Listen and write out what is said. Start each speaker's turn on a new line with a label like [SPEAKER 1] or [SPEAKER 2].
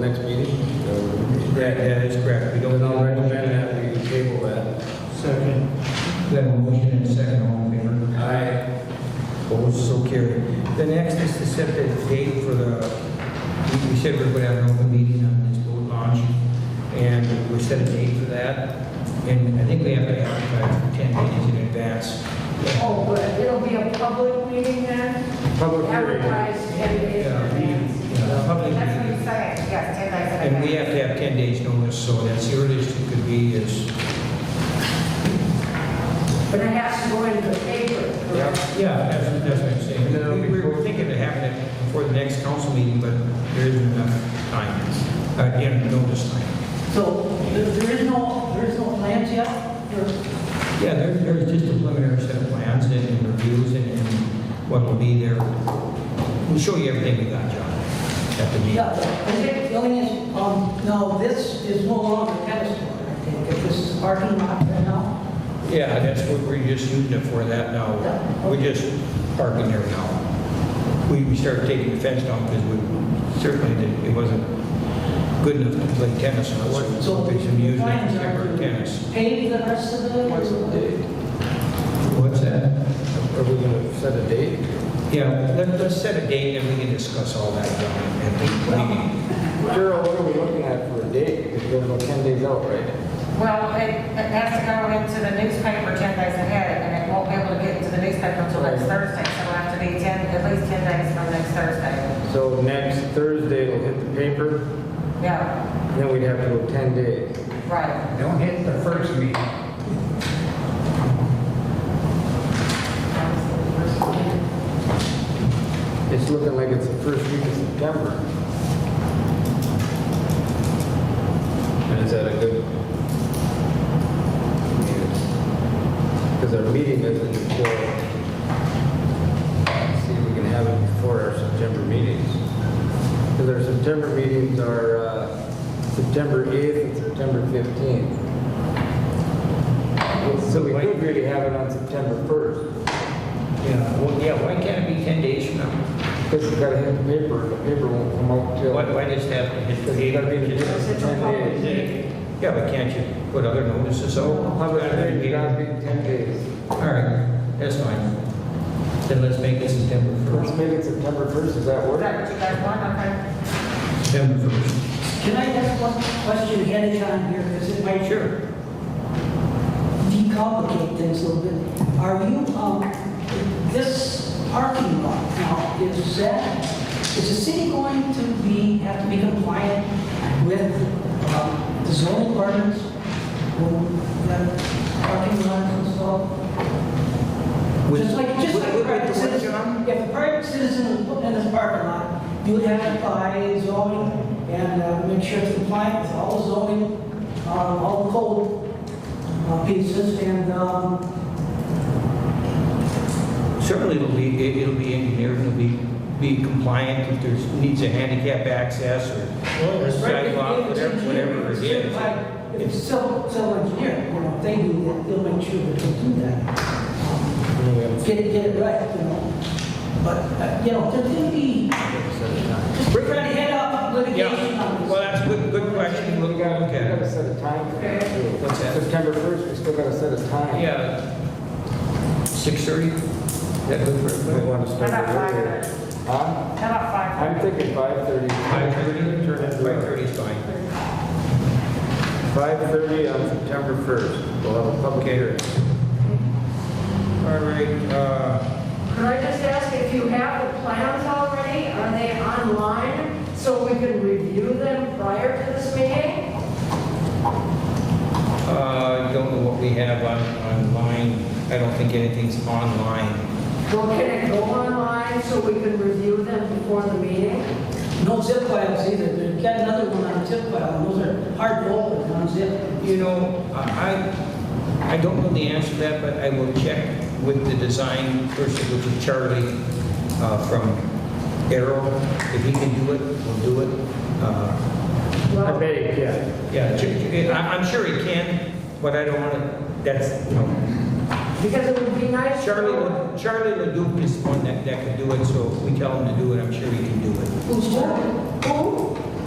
[SPEAKER 1] Next meeting?
[SPEAKER 2] That, that is correct. We
[SPEAKER 1] Then
[SPEAKER 2] don't,
[SPEAKER 1] I'll recommend that we table that.
[SPEAKER 3] Second.
[SPEAKER 2] we have a motion and a second, all in favor?
[SPEAKER 1] Aye.
[SPEAKER 2] Opposed, so carried. The next is to set the date for the, we- we said we're going to have an open meeting on this boat launch, and we set a date for that, and I think we have to advertise for 10 days in advance.
[SPEAKER 4] Oh, good, it'll be a public meeting then?
[SPEAKER 2] Public hearing.
[SPEAKER 4] Advertised ten days in
[SPEAKER 2] Yeah,
[SPEAKER 4] advance.
[SPEAKER 2] yeah, uh, public
[SPEAKER 4] That's what
[SPEAKER 2] hearing.
[SPEAKER 4] you said, yes, ten days in
[SPEAKER 2] And we have to have 10 days notice, so that's the earliest it could be is,
[SPEAKER 4] But it has to go into the paper.
[SPEAKER 2] yeah,
[SPEAKER 4] correct?
[SPEAKER 2] that's that's what I'm saying.
[SPEAKER 1] And then it'll be-
[SPEAKER 2] We we were thinking of having it before the next council meeting, but there isn't enough time, uh, you know, notice time.
[SPEAKER 5] So there there is no, there is no plans yet? There-
[SPEAKER 2] Yeah, there, there's just a preliminary set of plans and and reviews and, and what will be there. We'll show you everything we got, John, at the meeting.
[SPEAKER 5] Yeah, I think the only is, um, no, this is no longer tennis court, I think, if this is parking lot right now.
[SPEAKER 2] Yeah, that's what we're just using it for that now. We're just parking there now. We, we started taking the fence down because we certainly didn't, it wasn't good enough to play tennis on, so we
[SPEAKER 5] So
[SPEAKER 2] hope they should use it
[SPEAKER 5] plans are
[SPEAKER 2] for
[SPEAKER 5] to
[SPEAKER 2] tennis.
[SPEAKER 5] Pave the rest of the...
[SPEAKER 1] What's the date?
[SPEAKER 2] What's that?
[SPEAKER 1] Are we gonna set a date?
[SPEAKER 2] Yeah, let, let's set a date and we can discuss all that John, at the meeting.
[SPEAKER 1] Gerald, what are we looking at for a date? Because we're about ten days out, right?
[SPEAKER 4] Well, it, it has to go into the newspaper ten days ahead, and it won't be able to get into the newspaper until next Thursday, so it'll have to be ten, at least ten days from next Thursday.
[SPEAKER 1] So next Thursday it'll hit the paper,
[SPEAKER 4] Yeah,
[SPEAKER 1] then we'd have to go ten days.
[SPEAKER 4] right.
[SPEAKER 6] Don't hit the first meeting.
[SPEAKER 1] It's looking like it's the first week of September. And is that a good? Because our meeting isn't until, see if we can have it before our September meetings. Because our September meetings are uh, September 8th and September 15th. So we could really have it on September 1st,
[SPEAKER 2] Yeah, well, yeah, why can't it be 10 days from now?
[SPEAKER 1] because we've got to hit the paper, the paper won't come out till.
[SPEAKER 2] Why, why does it have to hit the
[SPEAKER 1] Because you gotta be in the
[SPEAKER 2] date?
[SPEAKER 1] business for ten days.
[SPEAKER 2] Yeah, but can't you put other notices out?
[SPEAKER 1] So how about that, you gotta be ten days.
[SPEAKER 2] All right, that's fine. Then let's make this September
[SPEAKER 1] Let's
[SPEAKER 2] 1st.
[SPEAKER 1] make it September first, does that
[SPEAKER 4] Is
[SPEAKER 1] work?
[SPEAKER 4] that what you guys want, okay?
[SPEAKER 2] September 1st.
[SPEAKER 5] Can I ask one question ahead of time here, because it might
[SPEAKER 2] Sure.
[SPEAKER 5] decomplicate things a little bit? Are you, um, this parking lot now, is that, is the city going to be, have to be compliant with um, the zoning ordinance when that parking lot is installed?
[SPEAKER 2] With-
[SPEAKER 5] Just like, just like a
[SPEAKER 2] with-
[SPEAKER 5] private
[SPEAKER 2] with-
[SPEAKER 5] citizen, if a private citizen was put in this parking lot, you would have to buy zoning and uh, make sure it's compliant with all the zoning, um, all the code uh, pieces, and, um,
[SPEAKER 2] Certainly it'll be, it- it'll be engineered, it'll be, be compliant if there's, needs a handicap access or sidewalk, whatever, whatever it is.
[SPEAKER 5] Certified- If it's civil, civil engineer, you know, they do that, they'll make sure that they do that. Get it, get it right, you know, but, uh, you know, there's gonna be, we're trying to head off litigation on
[SPEAKER 2] Yeah, well,
[SPEAKER 5] this.
[SPEAKER 2] that's a good, good question, we'll
[SPEAKER 1] We
[SPEAKER 2] go
[SPEAKER 1] gotta,
[SPEAKER 2] look
[SPEAKER 1] we
[SPEAKER 2] at
[SPEAKER 1] gotta
[SPEAKER 2] it.
[SPEAKER 1] set a time for that too.
[SPEAKER 2] What's that?
[SPEAKER 1] September first, we still gotta set a time.
[SPEAKER 2] Yeah. 6:30? That good for
[SPEAKER 1] We
[SPEAKER 2] everybody?
[SPEAKER 1] wanna start
[SPEAKER 4] How about
[SPEAKER 1] earlier. Huh?
[SPEAKER 4] How about five?
[SPEAKER 1] I'm thinking five thirty.
[SPEAKER 2] Five thirty, five thirty is fine.
[SPEAKER 1] Five thirty on September first, we'll have a public hearing.
[SPEAKER 2] All right, uh,
[SPEAKER 4] Could I just ask if you have the plans already? Are they online so we can review them prior to this meeting?
[SPEAKER 2] uh, don't know what we have on, online, I don't think anything's online.
[SPEAKER 4] Well, can it go online so we can review them before the meeting?
[SPEAKER 5] No zip files either, they've got another one on zip file, those are hard to open, unzip.
[SPEAKER 2] You know, I, I I don't know the answer to that, but I will check with the design person, which is Charlie, uh, from Arrow, if he can do it, we'll do it. Uh,
[SPEAKER 1] I
[SPEAKER 4] Well,
[SPEAKER 1] bet you can.
[SPEAKER 2] Yeah, Ch- Ch- I, I'm sure he can, but I don't wanna, that's, you know,
[SPEAKER 4] because it would be nice. to
[SPEAKER 2] Charlie,
[SPEAKER 4] know-
[SPEAKER 2] Le- Charlie LaDuke is the one that, that can do it, so if we tell him to do it, I'm sure he can do it.
[SPEAKER 5] Who's talking? Who?